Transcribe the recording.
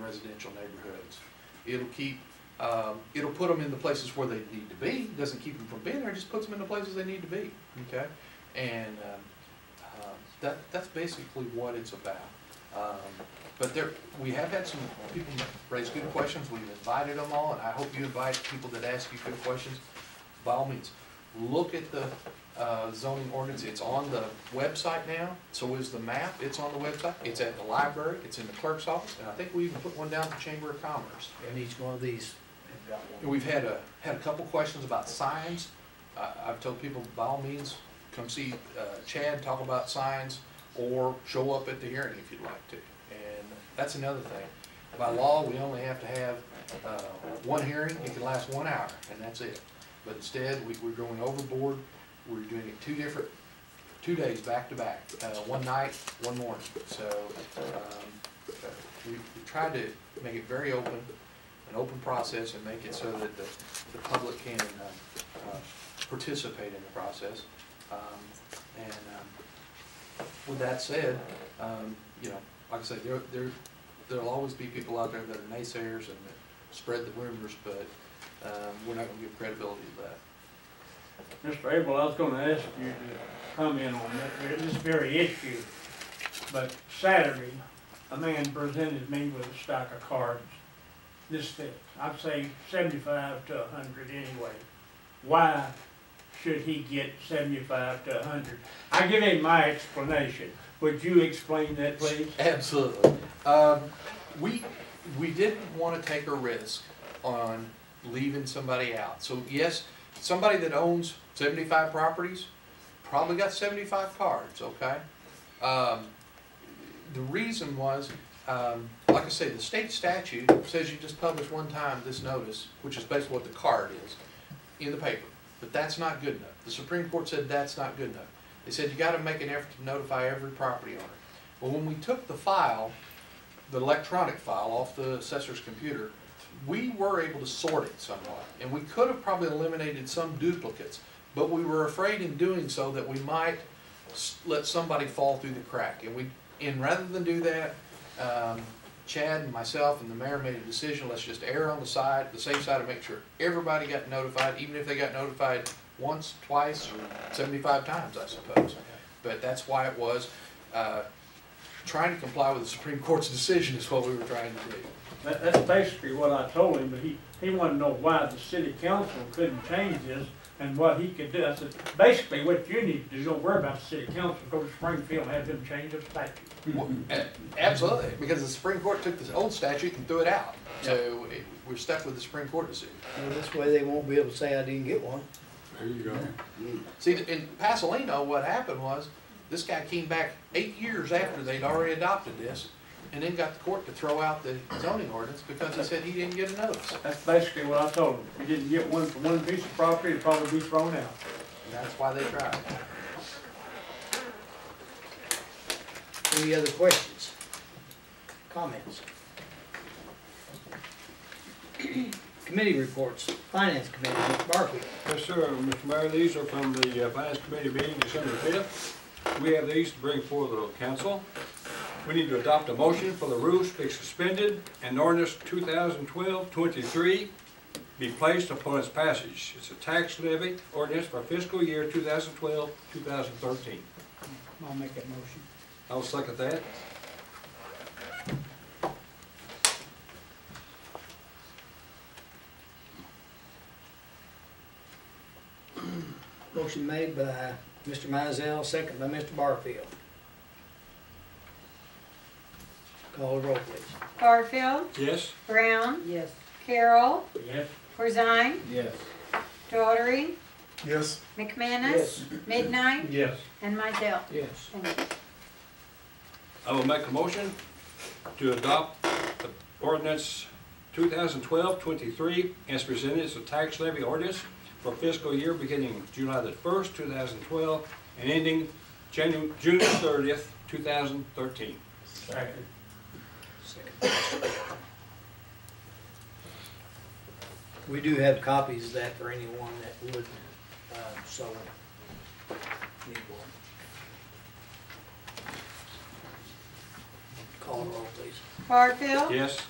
residential neighborhoods. It'll keep, um, it'll put them in the places where they need to be, doesn't keep them from being there, just puts them in the places they need to be, okay? And, um, uh, that, that's basically what it's about. Um, But there, we have had some people raise good questions, we've invited them all, and I hope you invite people that ask you good questions. By all means, look at the uh, zoning ordinance, it's on the website now, so is the map, it's on the website, it's at the library, it's in the clerk's office, and I think we even put one down at the Chamber of Commerce. And each one of these, And we've had a, had a couple questions about signs. I, I've told people, by all means, come see uh, Chad, talk about signs, or show up at the hearing if you'd like to. And that's another thing. By law, we only have to have, uh, one hearing, it can last one hour, and that's it. But instead, we, we're going overboard, we're doing it two different, two days back to back, uh, one night, one morning. So, um, we, we tried to make it very open, an open process and make it so that the, the public can, uh, uh, participate in the process. Um, and, um, with that said, um, you know, like I said, there, there, there'll always be people out there that are naysayers and that spread the rumors, but, um, we're not gonna give credibility to that. Mr. Abel, I was gonna ask you to comment on that, this very issue. But Saturday, a man presented me with a stack of cards this thick. I'd say seventy-five to hundred anyway. Why should he get seventy-five to hundred? I give him my explanation. Would you explain that, please? Absolutely. Um, we, we didn't wanna take a risk on leaving somebody out. So yes, somebody that owns seventy-five properties probably got seventy-five cards, okay? Um, the reason was, um, like I say, the state statute says you just publish one time this notice, which is basically what the card is, in the paper. But that's not good enough. The Supreme Court said that's not good enough. They said you gotta make an effort to notify every property owner. Well, when we took the file, the electronic file off the assessor's computer, we were able to sort it somewhat, and we could have probably eliminated some duplicates, but we were afraid in doing so that we might s- let somebody fall through the crack, and we, and rather than do that, um, Chad and myself and the mayor made a decision, let's just err on the side, the safe side, and make sure everybody got notified, even if they got notified once, twice, or seventy-five times, I suppose. But that's why it was, uh, trying to comply with the Supreme Court's decision is what we were trying to do. That, that's basically what I told him, but he, he wanted to know why the city council couldn't change this and what he could do. I said, basically what you need to do, don't worry about the city council, go to Springfield and have them change the statute. Well, a- Absolutely, because the Supreme Court took this old statute and threw it out. So it- we're stuck with the Supreme Court decision. well, this way they won't be able to say I didn't get one. There you go. See, in Pasolino, what happened was, this guy came back eight years after they'd already adopted this, and then got the court to throw out the zoning ordinance because he said he didn't get a notice. That's basically what I told him. If you didn't get one for one piece of property, it'd probably be thrown out. And that's why they tried. Any other questions? Comments? Committee reports, Finance Committee, Mr. Barkley. Yes, sir, Mr. Mayor, these are from the uh, Finance Committee meeting December fifth. We have these to bring forward to the council. We need to adopt a motion for the rules to be suspended and ordinance 2012-23 be placed upon its passage. It's a tax levy ordinance for fiscal year 2012-2013. twelve, two thousand thirteen. I'll make that motion. I'll second that. Motion made by Mr. Mizell, second by Mr. Barfield. Call the roll, please. Barfield, Yes? Brown, Yes. Carroll, Yes. Corzine, Yes. Daughtry, Yes. McManus, Midnight, Yes. and Mizell. Yes. Thank you. I will make a motion to adopt the ordinance 2012-23 as presented as a tax levy ordinance for fiscal year beginning July the 1st, 2012, and ending Janu- June 30th, 2013. Second. We do have copies of that for anyone that would, uh, so need one. Call the roll, please. Barfield, Yes?